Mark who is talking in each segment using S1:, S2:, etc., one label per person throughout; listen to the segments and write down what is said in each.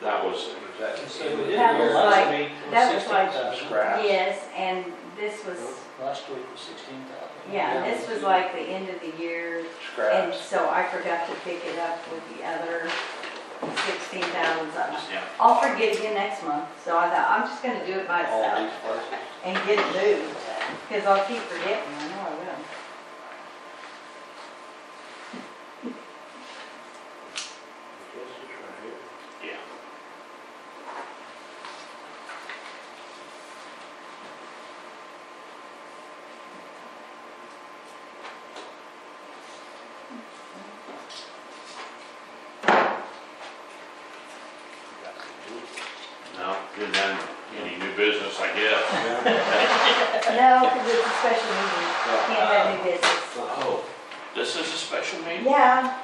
S1: That was,
S2: That
S3: So we did
S4: That
S3: here
S4: was
S3: last
S4: like-
S3: week, it
S4: that was like-
S3: 16,000.
S1: Scrap.
S4: Yes, and this was,
S3: Last week was sixteen thousand.
S4: yeah, this was like the end of the year, and
S1: scraps.
S4: so I forgot to pick it up with the other sixteen thousand something.
S1: Yeah,
S4: I'll forgive you next month, so I thought, I'm just gonna do it
S1: Oh.
S2: all
S4: myself
S2: these places.
S4: and get it moved, because I'll keep forgetting, I know I will.
S1: yeah. No, didn't have any new business, I guess.
S4: No, because it's a special meeting, can't have new business.
S1: Oh, this is a special meeting?
S4: Yeah,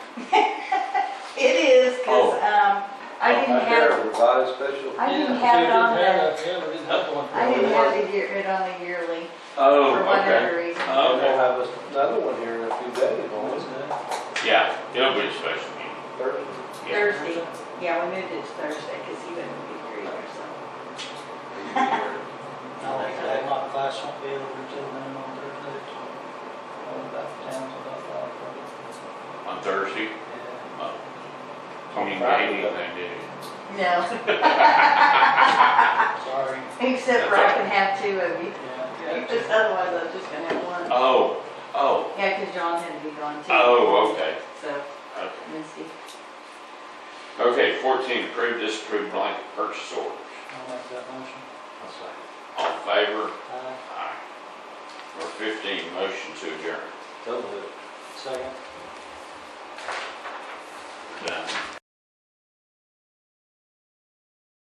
S4: it is, because,
S1: Oh.
S4: um, I didn't have,
S2: Revised special.
S4: I didn't
S3: Yeah,
S4: have it on
S3: we didn't
S4: the,
S3: have it, yeah, we didn't have one.
S4: I didn't have it year- it on the yearly,
S1: Oh,
S4: for
S1: okay.
S4: whatever reason.
S1: Oh,
S2: We'll
S1: okay.
S2: have another one here in a few days,
S3: What
S2: on
S3: was that?
S1: Yeah, it'll be a special meeting.
S2: Thursday.
S1: Yeah.
S4: Thursday, yeah, we moved it to Thursday because he wouldn't be here either, so.
S3: No, my class won't be over until then on Thursday. I'm about to town till about five.
S1: On Thursday?
S3: Yeah.
S1: Oh. You didn't get anything, did you?
S4: No,
S3: Sorry.
S4: except for I can have two of you,
S3: Yeah.
S4: because otherwise I was just gonna have one.
S1: Oh, oh,
S4: Yeah, because John had to be gone too.
S1: oh, okay.
S4: So,
S1: Okay.
S4: Misty,
S1: Okay, fourteen, approve, disapprove blanket purchase orders.
S3: I'll make that motion.
S1: All in favor?
S3: Aye.
S1: Aye. Number fifteen, motion to adjourn.
S2: Don't do it.
S3: Second.
S1: Done.